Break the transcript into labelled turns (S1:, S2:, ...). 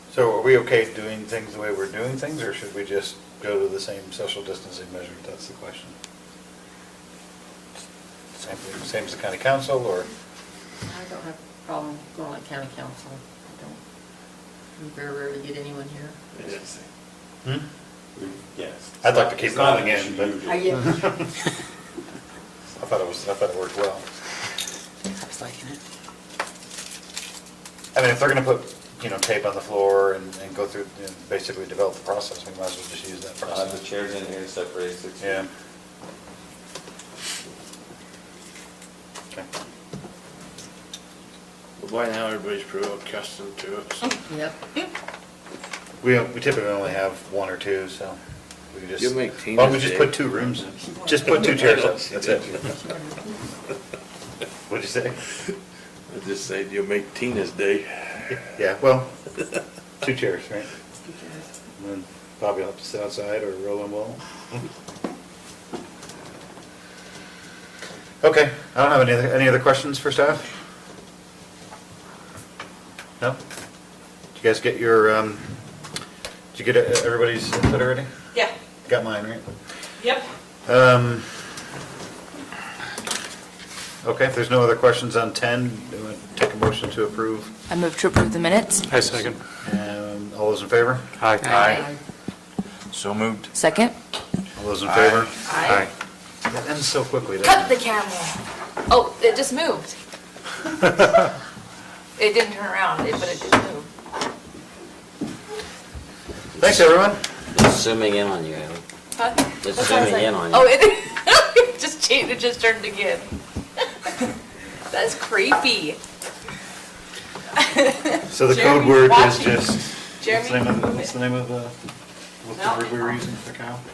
S1: So are we okay doing things the way we're doing things, or should we just go to the same social distancing measure? That's the question. Same, same as the county council, or?
S2: I don't have a problem going like county council. I don't, we very rarely get anyone here.
S3: Yes.
S1: Hmm?
S3: Yes.
S1: I'd like to keep
S3: It's not
S1: going
S3: an
S1: again,
S3: issue
S1: but-
S3: usually.
S2: Are you-
S1: I thought it was, I thought it worked well.
S4: I was liking it.
S1: I mean, if they're gonna put, you know, tape on the floor and, and go through, and basically develop the process, we might as well just use that
S3: I'll have
S1: process.
S3: Uh, the chairs in here separated six feet.
S1: Yeah. Okay.
S5: But by now, everybody's pretty well accustomed to it, so.
S2: Yep.
S1: We, we typically only have one or two, so we could just.
S6: You'll make Tina's
S1: Why don't we just
S6: day.
S1: put two rooms in? Just put two chairs up, that's it. What'd you say?
S6: I just said you'll make Tina's day.
S1: Yeah, well, two chairs, right? And then Bobby will have to sit outside or roll and roll. Okay, I don't have any, other- any other questions for staff? No? Did you guys get your, um, did you get uh, everybody's input already?
S7: Yeah,
S1: Got mine, right?
S7: yep.
S1: Um, Okay, if there's no other questions on 10, do I take a motion to approve?
S8: I move to approve the minutes.
S4: I second.
S1: Um, All those in favor?
S2: Aye.
S6: So moved.
S8: Second?
S1: All those in favor?
S2: Aye.
S1: That ends so quickly,
S8: Cut
S1: doesn't
S8: the
S1: it?
S8: camera. Oh, it just moved. It didn't turn around, it- but it did move.
S1: Thanks, everyone.
S3: It's zooming in on you, Ally.
S8: Huh?
S3: It's
S8: That's what I was
S3: zooming
S8: like-
S3: in on you.
S8: Oh, it, it just changed, it just turned again. That's creepy.
S1: So the code
S7: Jeremy's
S1: word is
S7: watching.
S1: just, what's the
S7: Jeremy,
S1: name of, the-
S7: move
S1: what's
S7: it.
S1: the name of the, what's the
S7: No.
S1: word we were using for cow?